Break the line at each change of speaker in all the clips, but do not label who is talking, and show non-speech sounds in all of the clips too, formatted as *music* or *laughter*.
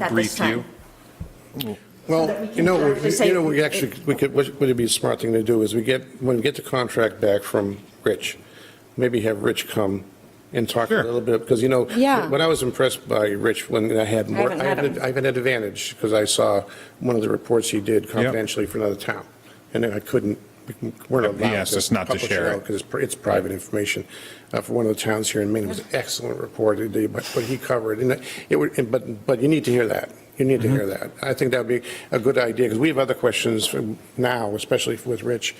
at this
brief you?
time. that we
Well,
can
you know,
directly
we-
say-
you know, we actually, we could, what would be a smart thing to do is we get, when we get the contract back from Rich, maybe have Rich come and talk a
Sure.
little bit, because you know,
Yeah.
when I was impressed by Rich, when I had more,
haven't
I
met
had,
him.
an- I had an advantage, because I saw one of the reports he did confidentially for another town, and I couldn't, we weren't allowed
He
to.
asked us not to share it.
Because it's, pri- it's private information, uh, for one of the towns here in Maine, it was an excellent report, it did, but, but he covered, and it would, and- but, but you need to hear that, you need to hear that.
Mm-hmm.
I think that'd be a good idea, because we have other questions from now, especially with Rich,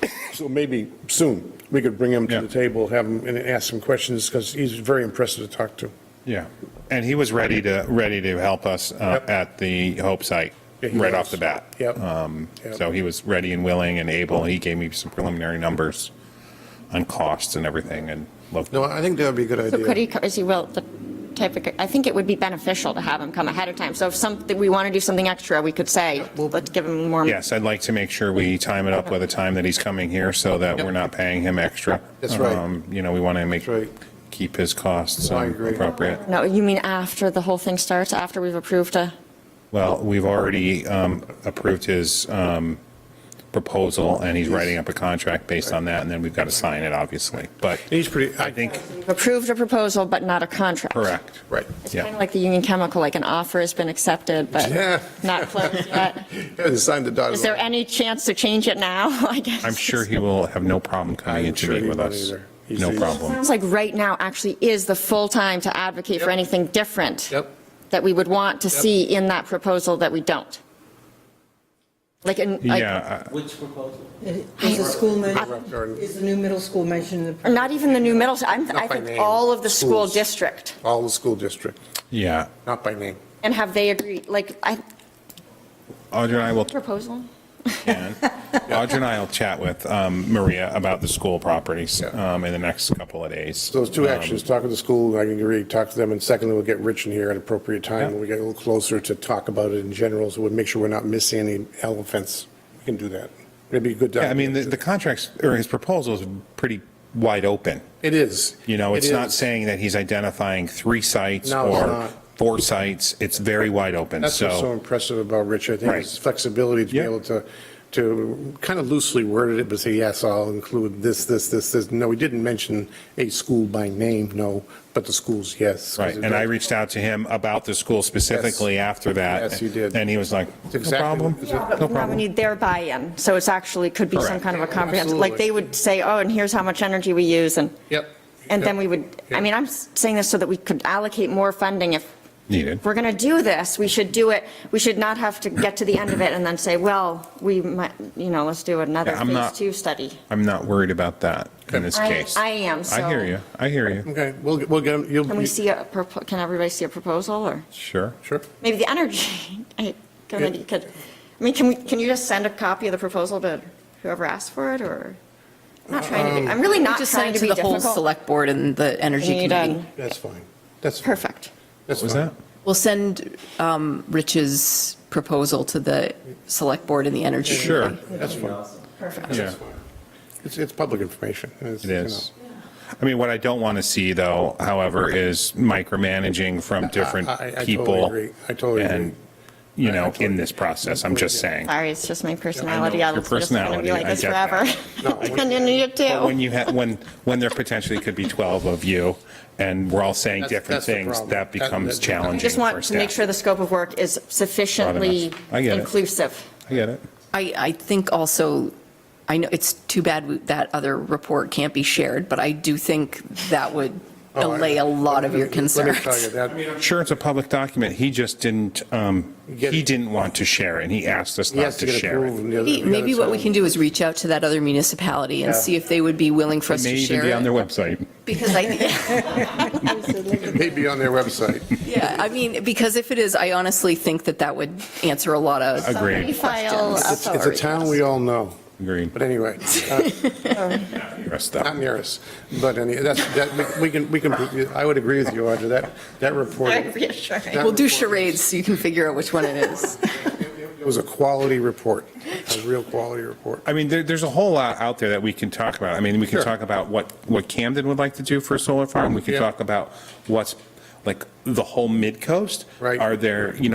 *coughs* so maybe soon, we could bring him to
Yeah.
the table, have him, and ask some questions, because he's very impressive to talk to.
Yeah, and he was ready to, ready to help us uh,
Yep.
at the Hope site,
Yeah, he
right
was.
off the bat.
Yep.
Um,
Yep.
So he was ready and willing and able, he gave me some preliminary numbers on costs and everything, and looked,
No, I think that would be a good
So could he,
idea.
co- is he will, the type of, I think it would be beneficial to have him come ahead of time. So if something, we want to do something extra, we could say, well, let's give him more.
yes, I'd like to make sure we time it up with the time that he's coming here, so that we're not paying him extra.
That's right.
Um, You know, we want to make,
That's right.
keep his costs
I
um,
agree.
appropriate.
No, you mean after the whole thing starts, after we've approved a,
Well, we've already um, approved his um, proposal, and he's writing up a contract based on that, and then we've got to sign it, obviously. But
He's pretty,
I think,
we've approved a proposal, but not a contract?
correct.
Right. *laughs*
It's
Yeah.
kind of like the Union Chemical, like an offer has been accepted,
Yeah.
but not closed
*laughs*
yet.
Hasn't signed the dotted
Is there
line.
any chance to change it now, *laughs* I guess?
I'm sure he will have no problem coming in
I'm
to
sure
meet
he
with
won't
us.
either. He's-
No
he's-
problem.
Sounds like right now actually is the full time to advocate for
Yep.
anything different.
Yep.
That we would want to
Yep.
see in that proposal that we don't. Like, in, like,
Yeah, uh, I-
Which proposal?
Is the school mentioned,
Kindergarten.
is the new middle school mentioned in the?
not even the new middle, I'm,
Not
I
by
think
name.
all of the school
Schools.
district.
All the school district,
yeah.
not by name.
And have they agreed, like, I,
Audra and I will,
proposal?
can. Audra and I will chat with um, Maria about the school properties
Yeah.
um, in the next couple of days. Um,
So Those two actions, talk to the school, I can agree, talk to them, and secondly, we'll get Rich in here at appropriate time, when we get a little closer to talk about it in general, so we'll make sure we're not missing any elephants. We can do that. It'd be a good.
Yeah, I mean, the- the contracts, or his proposal is pretty wide open.
It is.
You know, it's
It
not
is.
saying that he's identifying three sites
No, it's
or
not.
four sites. It's very wide open,
That's what's so
so.
impressive about Rich, I think,
Right.
is flexibility to be
Yeah.
able to, to kind of loosely worded it, but say, yes, I'll include this, this, this, this. No, he didn't mention a school by name, no, but the schools, yes. 'cause
Right, and I reached out to him about the school specifically after that.
Yes, you did.
And he was like,
It's
no
exactly-
problem,
it's
no
a-
Now we
problem.
need their buy-in, so it's actually, could be some
Correct.
kind of a comprehensive, like, they would say, oh, and here's how much energy we use, and.
Yep.
And then
Yep.
we would, I mean, I'm s- saying this so that we could allocate more funding if
Needed.
we're going to do this, we should do it, we should not have to get to the end of it and then say, well, we might, you know, let's do another
Yeah, I'm
phase
not-
two study.
I'm not worried about that in this
I-
case.
I am,
I
so-
hear you, I hear you,
Okay, we'll, we'll get him, you'll.
Can we see a, propo- can everybody see a proposal, or
sure.
Sure.
maybe the energy *laughs* I- committee could, I mean, can we, can you just send a copy of the proposal to whoever asked for it, or? I'm not trying to be, I'm really not
Uh, Just
trying
send it
to
to
be
the whole
difficult.
select board and the
We
energy
need
committee.
a-
That's fine. That's. fine.
Perfect.
That's
What was
fine.
that?
We'll send um, Rich's proposal to the select board and the energy committee.
Sure,
That's fine.
yeah.
It's, it's public information. It's,
It
you
is. I mean, what I don't want to see, though, however, is micromanaging from different
*laughs* I- I- I totally
people.
agree. I totally
and,
agree.
You
I- I
know,
totally
in this process, I'm just saying.
Sorry, it's just my personality,
your
I'm just going to
personality,
be like
I
this
get that.
forever. *laughs*
No, I-
And you need it
But when
too.
you have, when, when there potentially could be 12 of you, and we're all saying
That's-
different
that's the
things,
problem.
that
That- that-
becomes
that- I
challenging
I
for
just want to make sure
staff.
the scope of work is sufficiently
I get it.
inclusive.
I get it.
I, I think also, I know it's too bad we- that other report can't be shared, but I do think that would
know. Oh, I-
allay a lot of your
Let me tell you
concerns.
that.
Sure, it's a public document. He just didn't, um,
Get it.
he didn't want to share it, and he asked us
He
not
has to
to
get
share
approved.
it.
and the other-
Maybe
the
maybe
other
what we
side.
can do is reach out to that other municipality and
Yeah.
see if they would be willing for
It
us
may
to
even be
share
on their
it.
website.
Because I,
*laughs*
Maybe on their
*laughs*
website.
yeah, I mean, because if it is, I honestly think that that would answer a lot of
Agreed,
File
It's it's a town we all know.
agreed.
But anyway, uh,
Rest
not
up.
near us. But any, that's, that, we- we can, we can, I would agree with you, Audra, that, that report.
*laughs* reassuring.
that
We'll do
report-
charades so you can figure out which one it is.
It was a quality report, a real quality report.
I mean, there, there's a whole lot out there that we can talk about. I mean, we can
Sure.
talk about what, what Camden would like to do for a solar farm. We can
Yeah.
talk about what's, like the whole mid coast?
Right.
Are there, you know?